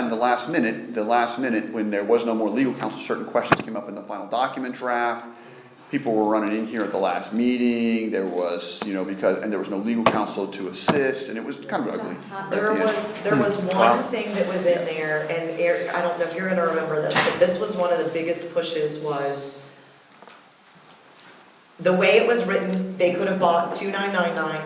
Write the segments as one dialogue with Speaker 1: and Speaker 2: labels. Speaker 1: time, the last minute, the last minute, when there was no more legal counsel, certain questions came up in the final document draft. People were running in here at the last meeting, there was, you know, because, and there was no legal counsel to assist, and it was kind of ugly. right at
Speaker 2: There
Speaker 1: the end. Hmm.
Speaker 2: was, there was one thing that was in there, and Eric, I don't know if you're gonna remember this, but this was one of the biggest pushes was the way it was written, they could have bought two nine nine nine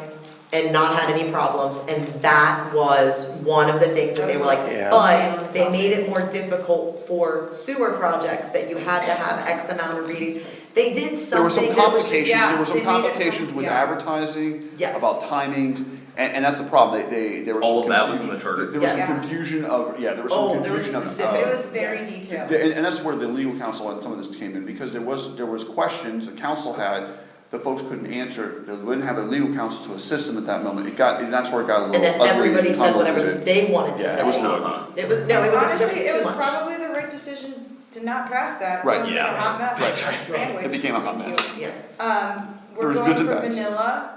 Speaker 2: and not had any problems, and that was one of the things that they were like,
Speaker 3: Yeah.
Speaker 2: but they made it more difficult for sewer projects that you had to have X amount of reading. They did
Speaker 1: There were
Speaker 2: something
Speaker 1: some
Speaker 2: that was just
Speaker 1: complications, there were some
Speaker 4: Yeah, they made it
Speaker 1: complications with
Speaker 4: yeah.
Speaker 1: advertising,
Speaker 2: Yes.
Speaker 1: about timings, and, and that's the problem, they, they, there was
Speaker 5: All
Speaker 1: some
Speaker 5: of that was in
Speaker 1: confusion.
Speaker 5: the charter.
Speaker 1: There was
Speaker 2: Yes.
Speaker 1: some confusion of, yeah, there was
Speaker 2: Oh,
Speaker 1: some
Speaker 2: there was
Speaker 1: confusion of,
Speaker 2: specific-
Speaker 4: It
Speaker 1: of-
Speaker 4: was very detailed.
Speaker 1: And, and that's where the legal counsel and some of this came in, because there was, there was questions the council had, the folks couldn't answer, they wouldn't have their legal counsel to assist them at that moment, it got, and that's where it got a
Speaker 2: And
Speaker 1: little
Speaker 2: then
Speaker 1: ugly and
Speaker 2: everybody said whatever
Speaker 1: convoluted.
Speaker 2: they wanted to say.
Speaker 1: Yeah, it was not,
Speaker 2: It was, no, it was, there
Speaker 4: Honestly, it
Speaker 2: was
Speaker 4: was
Speaker 2: too much.
Speaker 4: probably the right decision to not pass that,
Speaker 1: Right.
Speaker 4: so it's like
Speaker 5: Yeah.
Speaker 4: a hot mess,
Speaker 1: Right.
Speaker 4: sandwich.
Speaker 1: It became a hot mess.
Speaker 2: Yeah.
Speaker 4: Um,
Speaker 1: There
Speaker 4: we're
Speaker 1: was
Speaker 4: going
Speaker 1: goods
Speaker 4: for
Speaker 1: and bads.
Speaker 4: vanilla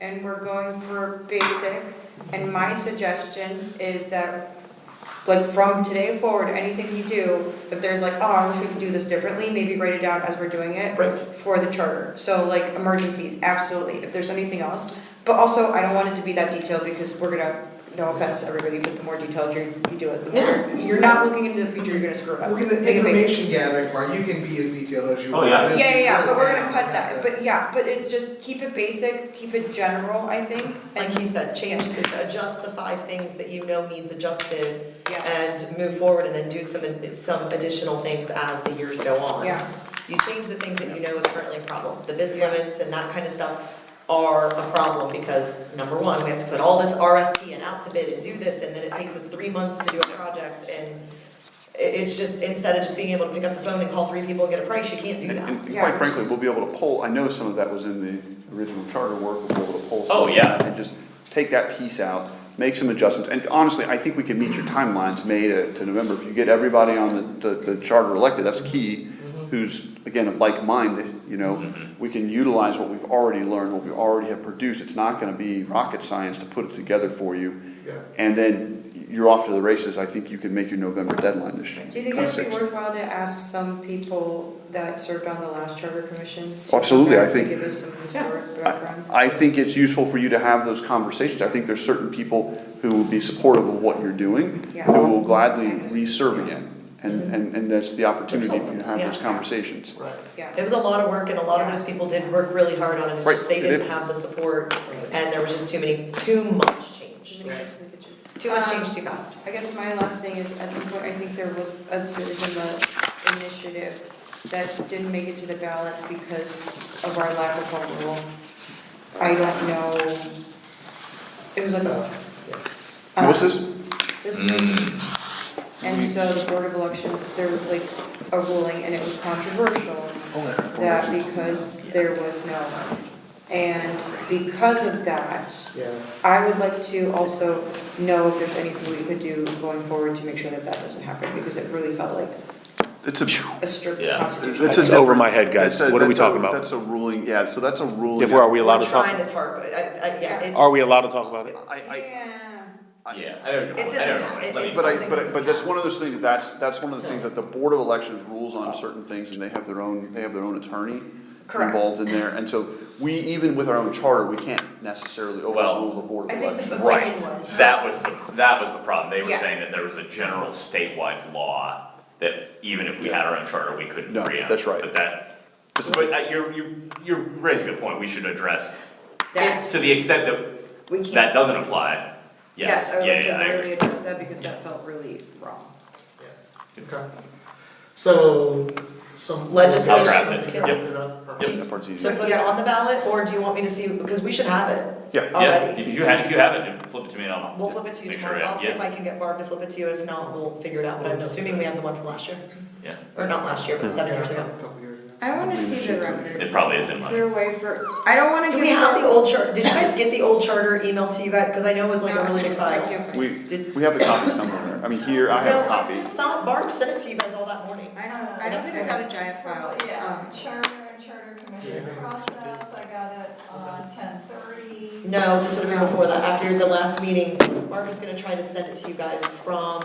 Speaker 4: and we're going for basic. And my suggestion is that, like, from today forward, anything you do, if there's like, oh, I wish we could do this differently, maybe write it down as we're doing it.
Speaker 2: Right.
Speaker 4: For the charter. So like emergencies, absolutely, if there's anything else. But also, I don't want it to be that detailed because we're gonna, no offense, everybody, but the more detailed you, you do it, the more, you're not looking into the future, you're gonna screw it up.
Speaker 3: Well, in the
Speaker 4: Make it basic.
Speaker 3: information gathering part, you can be as detailed as you
Speaker 5: Oh,
Speaker 3: want.
Speaker 5: yeah.
Speaker 3: It
Speaker 4: Yeah, yeah, yeah,
Speaker 3: doesn't
Speaker 4: but we're
Speaker 3: matter.
Speaker 4: gonna cut that, but yeah, but it's just, keep it basic, keep it general, I think, and,
Speaker 2: Like you said, change, the- adjust the five things that you know needs adjusted
Speaker 4: yeah,
Speaker 2: and move forward and then do some, some additional things as the years go on.
Speaker 4: yeah.
Speaker 2: You change the things that you know is currently a problem. The bid limits and that kind of stuff are a problem because number one, we have to put all this RFP and out to bid and do this and then it takes us three months to do a project and i- it's just, instead of just being able to pick up the phone and call three people and get a price, you can't do
Speaker 1: And,
Speaker 2: that.
Speaker 1: and
Speaker 4: Yeah.
Speaker 1: quite frankly, we'll be able to pull, I know some of that was in the original charter work, we'll be able to pull
Speaker 5: Oh,
Speaker 1: some of
Speaker 5: yeah.
Speaker 1: that and just take that piece out, make some adjustments, and honestly, I think we can meet your timelines, May to, to November, if you get everybody on the, the, the charter elected, that's key,
Speaker 5: Mm-hmm.
Speaker 1: who's, again, of like mind, you know, we can utilize what we've already learned, what we already have produced, it's not gonna be rocket science to put it together for you,
Speaker 3: Yeah.
Speaker 1: and then you're off to the races, I think you can make your November deadline this year.
Speaker 4: Do you think it would be
Speaker 1: 26th.
Speaker 4: worthwhile to ask some people that served on the last charter commission? to
Speaker 1: Absolutely,
Speaker 4: come
Speaker 1: I
Speaker 4: back
Speaker 1: think-
Speaker 4: To give us some historic
Speaker 1: I
Speaker 4: background?
Speaker 1: I think it's useful for you to have those conversations. I think there's certain people who will be supportive of what you're doing,
Speaker 4: Yeah.
Speaker 1: who will gladly re-serve again. And, and, and that's the opportunity for you to have those
Speaker 2: Yeah.
Speaker 1: conversations.
Speaker 3: Right.
Speaker 2: It
Speaker 4: Yeah,
Speaker 2: was a lot of work and a lot of those people did work really hard on it, it's
Speaker 1: Right,
Speaker 2: just they
Speaker 1: they
Speaker 2: didn't
Speaker 1: did.
Speaker 2: have the support and there was just too many, too much change. Too much
Speaker 5: Um,
Speaker 2: change, too fast.
Speaker 4: I guess my last thing is, at some point, I think there was a series in the initiative that didn't make it to the ballot because of our lack of home rule. I don't know, it was like a. uh,
Speaker 1: And What's this?
Speaker 6: Uh,
Speaker 4: This
Speaker 5: Mm.
Speaker 4: was, and so the Board of Elections, there was like a ruling and it was controversial that because there was no. And because of that,
Speaker 3: Yeah.
Speaker 4: I would like to also know if there's anything we could do going forward to make sure that that doesn't happen because it really felt like
Speaker 1: It's a.
Speaker 4: a strict
Speaker 5: Yeah.
Speaker 4: constitutional.
Speaker 6: That's just over my head, guys.
Speaker 1: that's a-
Speaker 6: What are we
Speaker 1: that's a-
Speaker 6: talking about?
Speaker 1: That's a ruling, yeah, so that's a ruling.
Speaker 6: If we're, are we allowed to
Speaker 2: We're
Speaker 6: talk?
Speaker 2: trying to target, I, I, yeah, it-
Speaker 6: Are we allowed to talk about it?
Speaker 1: I, I,
Speaker 4: Yeah.
Speaker 5: Yeah, I don't know,
Speaker 2: It's in
Speaker 5: I
Speaker 2: the-
Speaker 5: don't know,
Speaker 2: it-
Speaker 5: let me-
Speaker 2: it's-
Speaker 1: but I, but, I- but that's one of those things, that's, that's one of the things that the Board of Elections rules on certain things and they have their own, they have their own attorney
Speaker 4: Correct.
Speaker 1: involved in there. And so we, even with our own charter, we can't necessarily overrule the Board
Speaker 4: I
Speaker 1: of
Speaker 4: think the
Speaker 1: Elections.
Speaker 4: But
Speaker 5: Right,
Speaker 4: when it was-
Speaker 5: that was the, that was the problem, they were
Speaker 4: Yeah.
Speaker 5: saying that there was a general statewide law that even if we had our own charter, we couldn't
Speaker 1: No,
Speaker 5: preempt.
Speaker 1: that's right.
Speaker 5: But that, but uh, you're, you're, you're raising a good point, we should address,
Speaker 4: That,
Speaker 5: to the extent that
Speaker 4: we can't.
Speaker 5: that doesn't apply, yes,
Speaker 4: Yes, I would
Speaker 5: yeah,
Speaker 4: like
Speaker 5: yeah, I
Speaker 4: to
Speaker 5: agree.
Speaker 4: really address that because that felt really wrong.
Speaker 3: Okay. So, some.
Speaker 2: Legislation.
Speaker 5: I'll draft it.
Speaker 3: Something
Speaker 5: Yep.
Speaker 3: written up.
Speaker 5: Yep.
Speaker 1: That part's easy.
Speaker 2: So put it on the ballot, or do you want me to see, because we should have it
Speaker 1: Yeah.
Speaker 5: Yeah,
Speaker 2: already.
Speaker 5: if you have, if you have it, then flip it to me and I'll.
Speaker 2: We'll flip it to you
Speaker 5: make sure I-
Speaker 2: tomorrow, I'll see
Speaker 5: yeah,
Speaker 2: if I can get Barb to flip it to you, if not, we'll figure it out, but I'm assuming we have the one from last year,
Speaker 5: Yeah,
Speaker 2: or not last year, but seven
Speaker 3: Yeah,
Speaker 2: years
Speaker 3: a
Speaker 2: ago.
Speaker 3: couple years ago.
Speaker 7: I wanna see the record.
Speaker 5: it probably is in
Speaker 7: Is
Speaker 5: mine.
Speaker 7: there a way for, I don't wanna
Speaker 2: Do
Speaker 7: give.
Speaker 2: we have the old chart, did you guys get the old charter emailed to you guys, because I know it was like a really big file.
Speaker 7: I do.
Speaker 1: We,
Speaker 2: Did-
Speaker 1: we have a copy somewhere, I mean, here, I have a copy.
Speaker 2: No, I thought Barb sent it to you guys all that morning.
Speaker 7: I don't,
Speaker 4: I don't think I got a giant file.
Speaker 7: Yeah.
Speaker 4: Um,
Speaker 7: Charter and charter commission
Speaker 3: Yeah.
Speaker 7: process, I got it on ten thirty.
Speaker 2: No, this would have been before that, after the last meeting, Barb was gonna try to send it to you guys from